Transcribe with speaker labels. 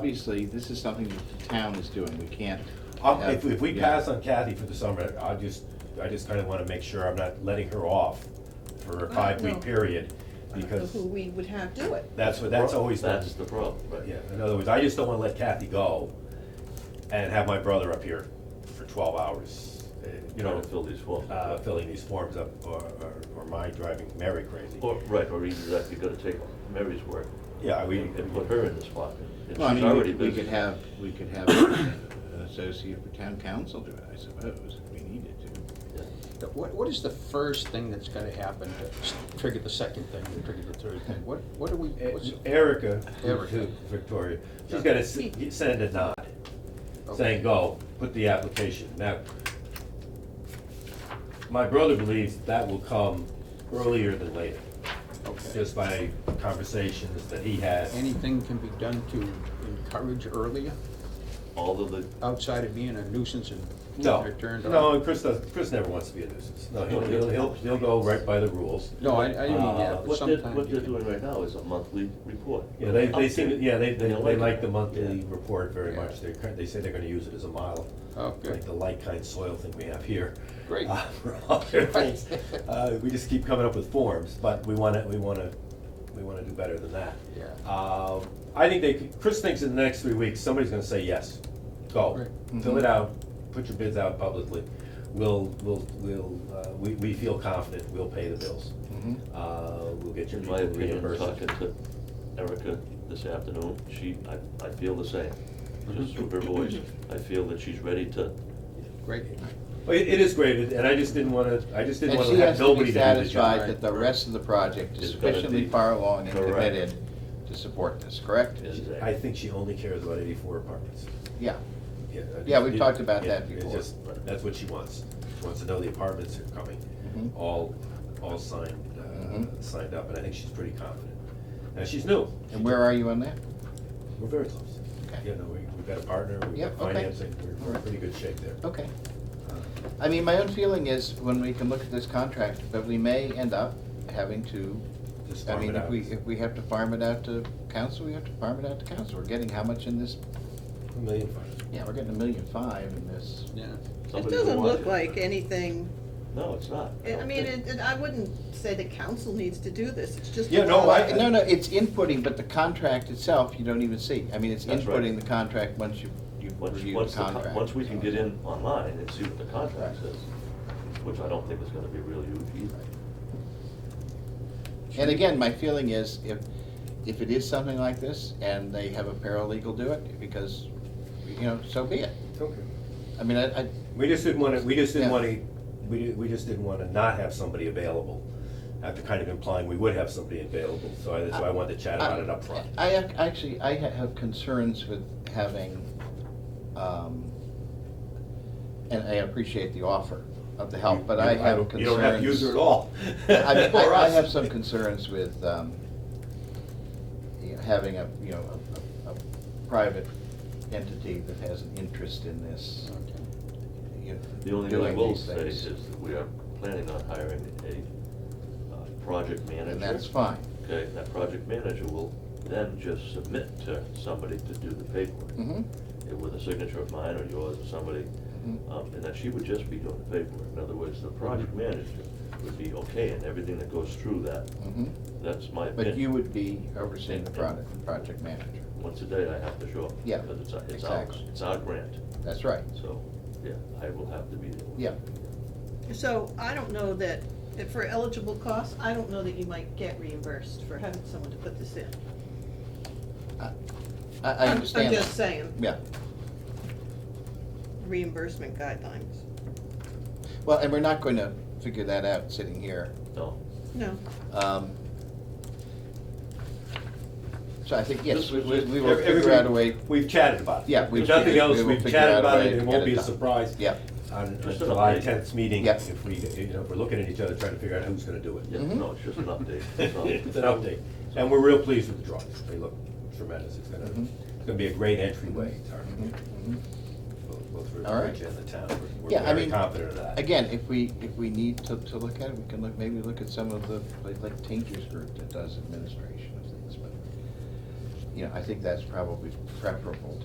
Speaker 1: obviously, this is something that the town is doing, we can't.
Speaker 2: I'll-
Speaker 1: have-
Speaker 2: Oh, If, if we
Speaker 1: yeah.
Speaker 2: pass on Kathy for the summer, I just, I just kinda wanna make sure I'm not letting her off for a
Speaker 3: Well, Uh, no.
Speaker 2: five-week period,
Speaker 3: So
Speaker 2: because
Speaker 3: Who we would have do it.
Speaker 2: that's what, that's always, the-
Speaker 4: That's the problem, right?
Speaker 2: yeah, in other words, I just don't wanna let Kathy go and have my brother up here for twelve hours, uh, you
Speaker 4: Trying
Speaker 2: know,
Speaker 4: to fill these forms.
Speaker 2: uh, filling these forms up, or, or- or my driving Mary crazy.
Speaker 4: Or, right, or either that, you gotta take Mary's work
Speaker 2: Yeah, we,
Speaker 4: and and put her in the spot. and
Speaker 1: Well, I
Speaker 4: she's
Speaker 1: mean, we
Speaker 4: already
Speaker 1: could- we
Speaker 4: busy.
Speaker 1: could have, we could have an associate for town council do it, I suppose, if we needed to.
Speaker 4: Yeah.
Speaker 5: What, what is the first thing that's gonna happen to s- trigger the second thing, to trigger the third thing? What, what are we, what's?
Speaker 2: E- Erica,
Speaker 5: Erica.
Speaker 2: who- Victoria, she's
Speaker 5: Yeah.
Speaker 2: gonna s- send a nod, saying,
Speaker 5: okay.
Speaker 2: go, put the application. Now, my brother believes that will come earlier than later,
Speaker 5: Okay.
Speaker 2: just by conversations that he has.
Speaker 5: Anything can be done to encourage earlier,
Speaker 4: All of the,
Speaker 5: outside of being a nuisance and
Speaker 2: No,
Speaker 5: getting it turned on?
Speaker 2: no, and Chris does, Chris never wants to be a nuisance. No, he'll, he'll, he'll, he'll go right by the rules.
Speaker 5: No, I, I didn't mean
Speaker 4: Uh,
Speaker 5: that, but
Speaker 4: what they're,
Speaker 5: sometimes.
Speaker 4: what
Speaker 5: you
Speaker 4: they're
Speaker 5: can-
Speaker 4: doing right now is a monthly report.
Speaker 2: Yeah, they, they
Speaker 4: Update.
Speaker 2: seem, yeah, they, they,
Speaker 4: And
Speaker 2: they like the monthly
Speaker 4: Yeah.
Speaker 2: report very
Speaker 5: Yeah.
Speaker 2: much. They're, cur- they say they're gonna use it as a model.
Speaker 5: Oh,
Speaker 2: like
Speaker 5: good,
Speaker 2: the light kind soil thing we have here.
Speaker 5: Great.
Speaker 2: Uh, for all their things. Uh, we just keep coming up with forms, but we wanna, we wanna, we wanna do better than that.
Speaker 5: yeah.
Speaker 2: Um, I think they, could- Chris thinks in the next three weeks, somebody's gonna say yes, go,
Speaker 5: Right.
Speaker 2: fill
Speaker 1: Mm-hmm.
Speaker 2: it out, put your bids out publicly. We'll, we'll, we'll, uh, we, we feel confident, we'll pay the bills,
Speaker 1: Mhm.
Speaker 2: uh, we'll get your
Speaker 4: In my
Speaker 2: people
Speaker 4: opinion,
Speaker 2: reimbursed.
Speaker 4: talking to Erica this afternoon, she, I, I feel the same, just through her voice. I feel that she's ready to,
Speaker 5: Great,
Speaker 2: Well, it, it is great, and I just didn't wanna, I just didn't
Speaker 1: And
Speaker 2: wanna
Speaker 1: she
Speaker 2: have
Speaker 1: has to
Speaker 2: nobody
Speaker 1: be
Speaker 2: to do the job.
Speaker 1: satisfied that the rest of the project is
Speaker 4: It's gotta
Speaker 1: sufficiently
Speaker 4: be-
Speaker 1: far along and
Speaker 4: Correct.
Speaker 1: committed to support this, correct?
Speaker 4: is
Speaker 2: I think she only cares about eighty-four apartments.
Speaker 1: Yeah,
Speaker 2: I
Speaker 1: Yeah,
Speaker 2: just-
Speaker 1: we've talked about
Speaker 2: yeah,
Speaker 1: that
Speaker 2: it's
Speaker 1: before.
Speaker 2: just- That's what she wants. She wants to know the apartments are coming,
Speaker 1: Mhm.
Speaker 2: all, all signed, uh,
Speaker 1: Mhm.
Speaker 2: signed up, and I think she's pretty confident. Now, she's new.
Speaker 1: and where are you on that?
Speaker 2: We're very close.
Speaker 1: Okay.
Speaker 2: You know, we, we've got a partner, we've got
Speaker 1: Yep, okay.
Speaker 2: financing, we're-
Speaker 1: All
Speaker 2: we're in
Speaker 1: right.
Speaker 2: pretty good shape there. Uh,
Speaker 1: Okay. I mean, my own feeling is, when we can look at this contract, that we may end up having to,
Speaker 2: Just
Speaker 1: I
Speaker 2: farm
Speaker 1: mean,
Speaker 2: it
Speaker 1: if
Speaker 2: out.
Speaker 1: we, if we have to farm it out to council, we have to farm it out to council. We're getting how much in this,
Speaker 2: A million five.
Speaker 1: yeah, we're getting a million five in this.
Speaker 5: yeah.
Speaker 3: It
Speaker 4: somebody who
Speaker 3: doesn't
Speaker 4: wants
Speaker 3: look like anything,
Speaker 4: No, it's not.
Speaker 3: I I
Speaker 4: don't
Speaker 3: mean,
Speaker 4: think.
Speaker 3: it, it- I wouldn't say the council needs to do this, it's just.
Speaker 2: Yeah, no, I-
Speaker 1: No, no, it's inputting, but the contract itself, you don't even see. I mean, it's
Speaker 4: That's right.
Speaker 1: inputting the contract once you, you
Speaker 4: Once,
Speaker 1: review
Speaker 4: once,
Speaker 1: the
Speaker 4: the con-
Speaker 1: contract.
Speaker 4: once we can get in online and see what the contract says, which I don't think is gonna be real huge either.
Speaker 1: And again, my feeling is, if, if it is something like this, and they have a paralegal do it, because, you know, so be it.
Speaker 2: Okay.
Speaker 1: I mean, I, I,
Speaker 2: We just didn't wanna, we just didn't
Speaker 1: Yeah.
Speaker 2: wanna, we, di- we just didn't wanna not have somebody available, after kind of implying we would have somebody available, so I, that's why I wanted to chat about it up front.
Speaker 1: Uh, I ac- actually, I ha- have concerns with having, um, and I appreciate the offer of the help, but I
Speaker 2: You-
Speaker 1: have
Speaker 2: don't-
Speaker 1: concerns.
Speaker 2: You don't have to use her at all.
Speaker 1: I mean, I,
Speaker 2: Or
Speaker 1: I
Speaker 2: us.
Speaker 1: have some concerns with, um, you know, having a, you know, a, a- a private entity that has an interest in this,
Speaker 5: Okay.
Speaker 1: you know,
Speaker 4: The only thing I
Speaker 1: doing
Speaker 4: will
Speaker 1: these
Speaker 4: say is
Speaker 1: things.
Speaker 4: that we are planning on hiring a, uh, project manager.
Speaker 1: And that's fine.
Speaker 4: Okay, and that project manager will then just submit to somebody to do the paperwork,
Speaker 1: Mm-hmm,
Speaker 4: eh, with a signature of mine or yours or somebody,
Speaker 1: Mhm.
Speaker 4: um, and that she would just be doing the paperwork. In other words, the project manager would be okay and everything that goes through that,
Speaker 1: mm-hmm.
Speaker 4: that's my opinion.
Speaker 1: But you would be overseeing the product, project manager.
Speaker 4: Once a day I have to show up.
Speaker 1: Yeah,
Speaker 4: Because it's, our- it's our,
Speaker 1: exactly.
Speaker 4: it's our grant,
Speaker 1: That's right.
Speaker 4: so, yeah, I will have to be there.
Speaker 1: Yeah.
Speaker 3: So I don't know that, if for eligible costs, I don't know that you might get reimbursed for having someone to put this in.
Speaker 1: I, I I
Speaker 3: I'm-
Speaker 1: understand.
Speaker 3: I'm
Speaker 1: that.
Speaker 3: just saying,
Speaker 1: Yeah,
Speaker 3: reimbursement guidelines,
Speaker 1: well, and we're not going to figure that out sitting here.
Speaker 4: No,
Speaker 3: no.
Speaker 1: Um, So I think, yes,
Speaker 4: Just-
Speaker 1: we, we we will
Speaker 2: Every-
Speaker 1: figure out a way,
Speaker 2: We've chatted about it.
Speaker 1: Yeah, we've
Speaker 2: If nothing
Speaker 1: figured-
Speaker 2: else,
Speaker 1: we will
Speaker 2: we've
Speaker 1: figure out
Speaker 2: chatted
Speaker 1: a
Speaker 2: about
Speaker 1: way
Speaker 2: it,
Speaker 1: to
Speaker 2: it
Speaker 1: get
Speaker 2: won't
Speaker 1: it
Speaker 2: be a
Speaker 1: done.
Speaker 2: surprise
Speaker 1: yeah.
Speaker 2: on on
Speaker 4: Just an
Speaker 2: July
Speaker 4: update.
Speaker 2: tenth meeting,
Speaker 1: Yeah.
Speaker 2: if we, you know, if we're looking at each other trying to figure out who's gonna do it.
Speaker 4: yeah,
Speaker 1: Mhm.
Speaker 4: no, it's just an update. That's all.
Speaker 2: It's an update, and we're real pleased with the drawings, they look tremendous, it's gonna,
Speaker 1: Mhm.
Speaker 2: it's gonna be a great entryway to our
Speaker 1: Mhm,
Speaker 2: community,
Speaker 1: mhm.
Speaker 2: both both for
Speaker 1: All right.
Speaker 2: Ridge and the town, We're-
Speaker 1: Yeah,
Speaker 2: we're
Speaker 1: I
Speaker 2: very
Speaker 1: mean,
Speaker 2: confident of that.
Speaker 1: Again, if we, if we need to, to look at it, we can look, maybe look at some of the, like, like Tinker's group that does administration of things, but. you know, I think that's probably preferable